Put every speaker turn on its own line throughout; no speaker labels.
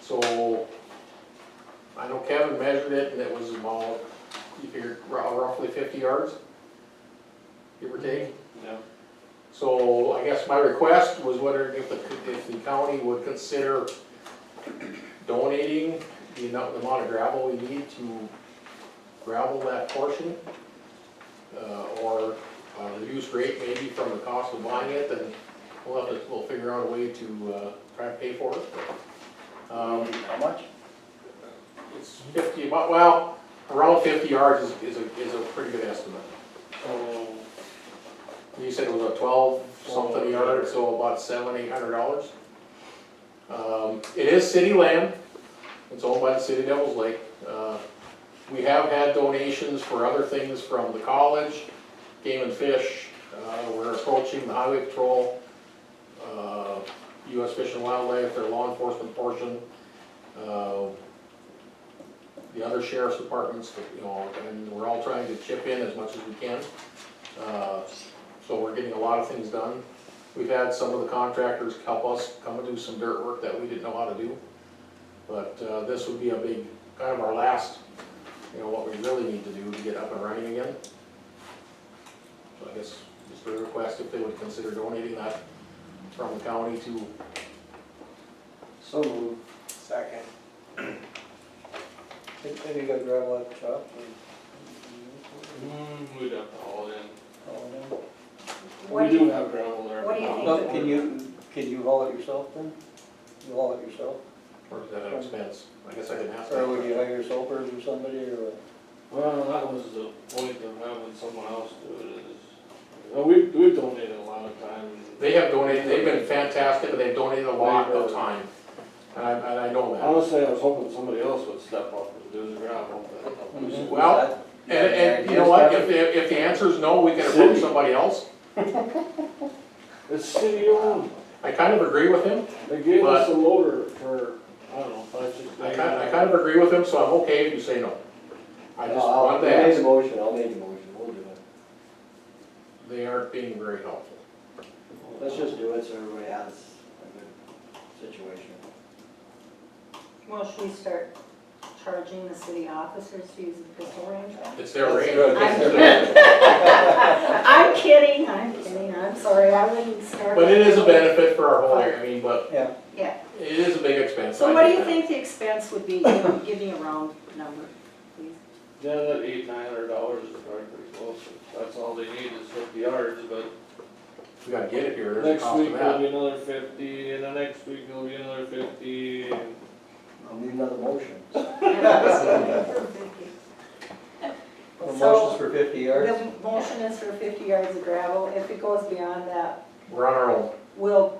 So, I know Kevin measured it, and it was about, you figured rou- roughly fifty yards, give or take.
Yeah.
So I guess my request was whether if the, if the county would consider donating the amount, the amount of gravel we need to gravel that portion. Uh, or uh, reduce rate maybe from the cost of buying it, then we'll have to, we'll figure out a way to, uh, try and pay for it. Um,
How much?
it's fifty, about- well, around fifty yards is, is a, is a pretty good estimate.
Uh,
Oh,
You said it was a twelve something yard, so about seven, eight hundred dollars. Um, it is city land, it's owned by the city of Devils Lake. Uh, We have had donations for other things from the college, Game and Fish, uh, we're approaching the Highway Patrol, uh, US Fish and Wildlife, their law enforcement portion. uh, The other sheriff's departments, you know, and we're all trying to chip in as much as we can. Uh, so we're getting a lot of things done. We've had some of the contractors help us come and do some dirt work that we didn't know how to do. But uh, this would be a big, kind of our last, you know, what we really need to do to get up and running again. So I guess just a request if they would consider donating that from the county to,
So moved.
second.
Think maybe you got gravel at the top
Mm, we'd have to haul in.
or?
We
What do
do
you,
have gravel there.
what do you
but
think?
not-
Well, can you, can you haul it yourself then? You haul it yourself?
or is that an expense? I guess I didn't ask
Or would you
that.
hire helpers or somebody or? what?
Well, that was the point of having someone else do it is, well, we, we've donated a lot of time.
They have donated, they've been fantastic, and they've donated a lot of time. And I, and I know that.
Honestly, I was hoping somebody else would step up and do the gravel, but.
Mm-hmm.
Well, And, and you know what, if, the- if the answer is no, we can approach somebody else.
It's city owned,
I kind of agree with him,
they gave us a loader for, I don't know, five, six.
I kind, I kind of agree with him, so I'm okay if you say no. I just want
I'll make a
that,
motion, I'll make a motion, we'll do it.
they aren't being very helpful.
Let's just do it so everybody has a good situation.
Well, should we start charging the city officers to use the pistol range?
It's their
That's
range.
good.
I'm kidding. I'm kidding, I'm kidding, I'm sorry, I wouldn't start.
But it is a benefit for our whole area, I mean, but
Yeah,
Yeah,
it is a big expense.
so what do you think the expense would be, Give me- give me a round number, please?
Yeah, that eight, nine hundred dollars is probably pretty close, that's all they need is fifty yards, but
We gotta get it here, there's a
Next
cost to
week will
that.
be another fifty, and the next week will be another fifty, and
I'll need another motion.
So-
Motion's for fifty yards?
The motion is for fifty yards of gravel, if it goes beyond that,
We're on our own.
we'll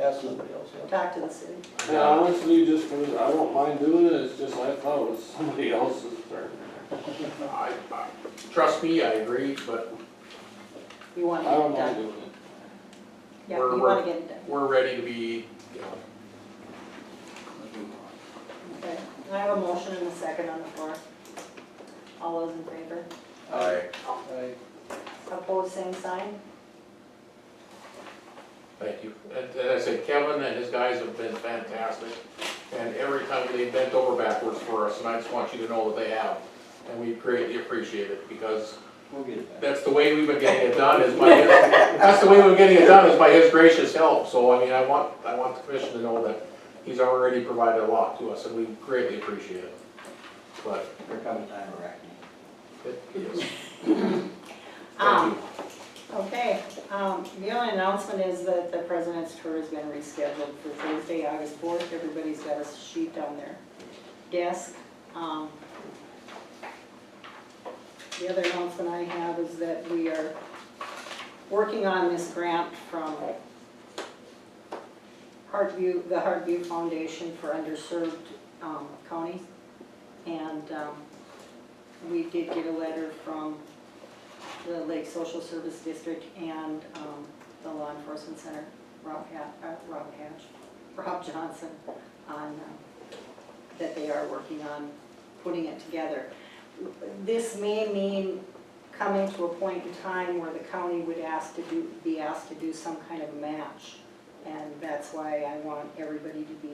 Ask somebody else, yeah.
talk to the city.
and honestly, just for, I don't mind doing it, it's just I thought it was somebody else's turn.
I, I, trust me, I agree, but
You
I
want to get
don't
it
mind
done,
doing it.
yeah,
We're-
you
we're-
want to get it done.
we're ready to be, you know,
Okay, I have a motion and a second on the floor. All those in favor?
Aye. Aye.
Opposed, same sign?
Thank you. And and I said, Kevin and his guys have been fantastic. And every time they bent over backwards for us, and I just want you to know that they have. And we greatly appreciate it because
We'll get it back.
that's the way we've been getting it done is by his, that's the way we've been getting it done is by his gracious help. So I mean, I want, I want the commission to know that he's already provided a lot to us and we greatly appreciate it. But
Here comes time of reckoning.
it is, thank
Um,
you.
okay, um, the only announcement is that the president's tour has been rescheduled for Thursday, August fourth. Everybody's got a sheet on their desk. Um, the other announcement I have is that we are working on this grant from Heartview, the Heartview Foundation for Underserved, um, counties. And, um, we did get a letter from the Lake Social Service District and um, the Law Enforcement Center, Rob Ha- uh, Rob Hatch, Rob Johnson, on, um, that they are working on putting it together. This may mean coming to a point in time where the county would ask to do, be asked to do some kind of match. And that's why I want everybody to be